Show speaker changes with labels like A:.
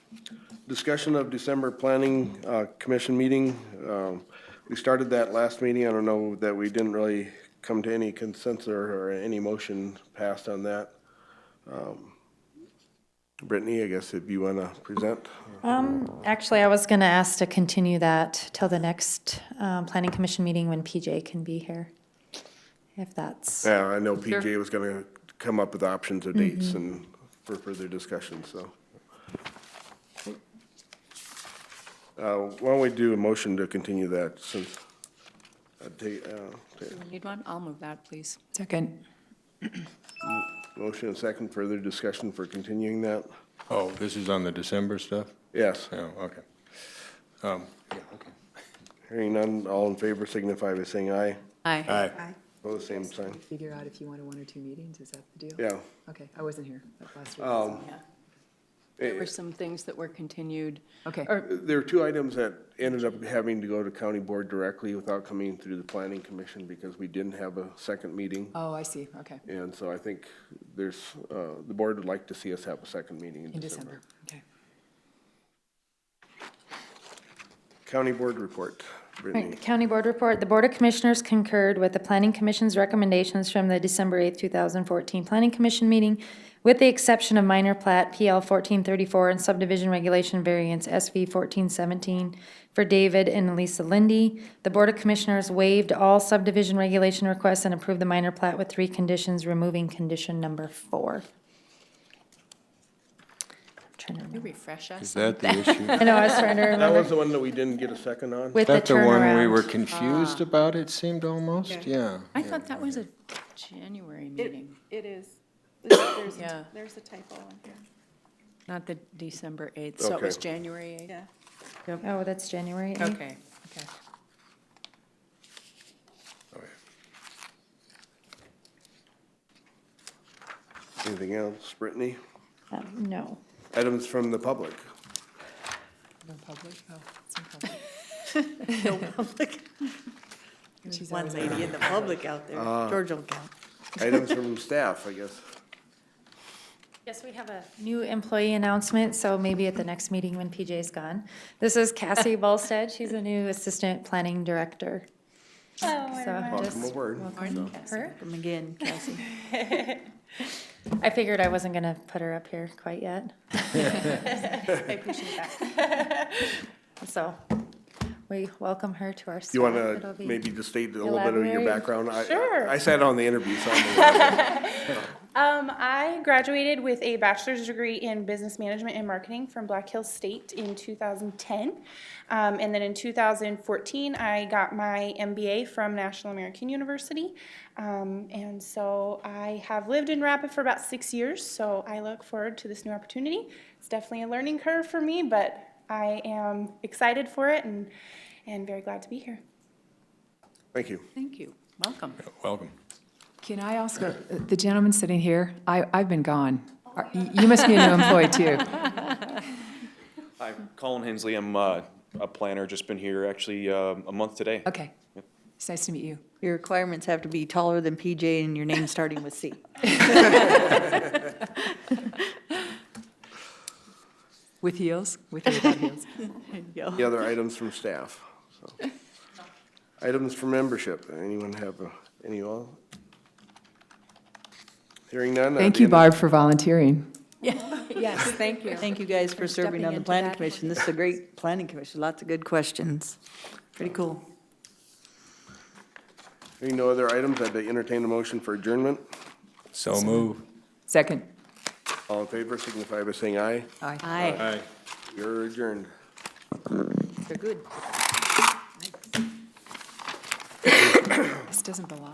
A: discussion of December Planning uh, Commission meeting. Um, We started that last meeting. I don't know that we didn't really come to any consensus or any motion passed on that. Um, Brittany, I guess if you want to present.
B: Actually, I was going to ask to continue that till the next um, Planning Commission meeting when PJ can be here, if that's,
A: Yeah, I know PJ was going to come up with options or dates and for further discussion, so. Uh, Why don't we do a motion to continue that since, uh, ta- uh, ta-
C: Need one? I'll move that, please.
D: Second.
A: motion and second, further discussion for continuing that?
E: Oh, this is on the December stuff?
A: Yes,
E: Oh, okay. Um, yeah, okay.
A: hearing none, all in favor signify by saying aye.
C: Aye.
E: Aye.
A: Oh, the same sign,
D: Figure out if you wanted one or two meetings, is that the deal?
A: yeah.
D: Okay, I wasn't here like last week.
C: Um, There were some things that were continued.
D: Okay.
C: Or
A: There are two items that ended up having to go to county board directly without coming through the planning commission because we didn't have a second meeting.
D: Oh, I see, okay,
A: And so I think there's, uh, the board would like to see us have a second meeting in
D: in December,
A: December.
D: okay.
A: County board report, Brittany.
B: Right, County Board Report, the Board of Commissioners concurred with the Planning Commission's recommendations from the December 8, 2014 Planning Commission meeting, with the exception of minor plat PL 1434 and subdivision regulation variance SV 1417 for David and Lisa Lindy. The Board of Commissioners waived all subdivision regulation requests and approved the minor plat with three conditions, removing condition number four. Trying to
C: you
B: remember.
C: refresh
E: Is
C: us.
E: that the issue?
B: I know, I was trying to
A: That
B: remember
A: was the one that we didn't get a second on?
B: with the
E: That the one we were
B: turnaround.
E: confused about, it seemed almost, yeah.
C: I thought that was a January meeting,
F: It is, there's,
C: Yeah.
F: a- there's a typo in here,
C: not the December 8th. So it
A: Okay.
C: was January 8th?
F: yeah.
B: Oh, that's January 8th.
C: Okay, okay.
A: Anything else, Brittany?
B: Um, No.
A: Items from the public.
D: No public, oh, it's in public.
F: There's
D: She's
F: one
D: always
F: lady in the public out there, George will count.
A: Items from staff, I guess.
B: Yes, we have a new employee announcement, so maybe at the next meeting when PJ's gone. This is Cassie Bolstead. She's a new Assistant Planning Director. Oh, So I'm
A: Welcome
B: just-
A: aboard.
B: Her?
F: Come again, Cassie.
B: I figured I wasn't going to put her up here quite yet.
F: I appreciate that.
B: So we welcome her to our staff.
A: You want to
B: It'll be-
A: maybe just state a little bit of your
B: Elaborate.
A: background? I-
G: Sure.
A: I sat on the interview, so I'm aware.
G: Um, I graduated with a bachelor's degree in business management and marketing from Black Hills State in 2010. Um, and then in 2014, I got my MBA from National American University. Um, and so I have lived in Rapid for about six years, so I look forward to this new opportunity. It's definitely a learning curve for me, but I am excited for it and, and very glad to be here.
A: Thank you.
C: Thank you. Welcome.
E: Welcome.
D: Can I ask, uh, the gentleman sitting here, I, I've been gone. Are- y- You must be a new employee too.
H: Hi, Colin Hensley. I'm uh, a planner, just been here actually uh, a month today.
D: Okay, it's nice to meet you.
F: Your requirements have to be taller than PJ and your name starting with C.
D: With heels, with or without heels.
A: Any other items from staff? So. Items for membership, anyone have, a- any all? Hearing none. uh,
D: Thank
A: the
D: you,
A: end-
D: Barb, for volunteering.
C: Yes, thank you.
F: Thank you guys for serving
C: stepping
F: on the
C: into
F: planning
C: that.
F: commission. This is a great planning commission, lots of good questions. Pretty cool.
A: Hearing no other items, I'd entertain a motion for adjournment.
E: So move.
D: Second.
A: All in favor signify by saying aye.
D: Aye.
F: Aye.
E: Aye.
A: You're adjourned.
F: They're good.
D: This doesn't belong.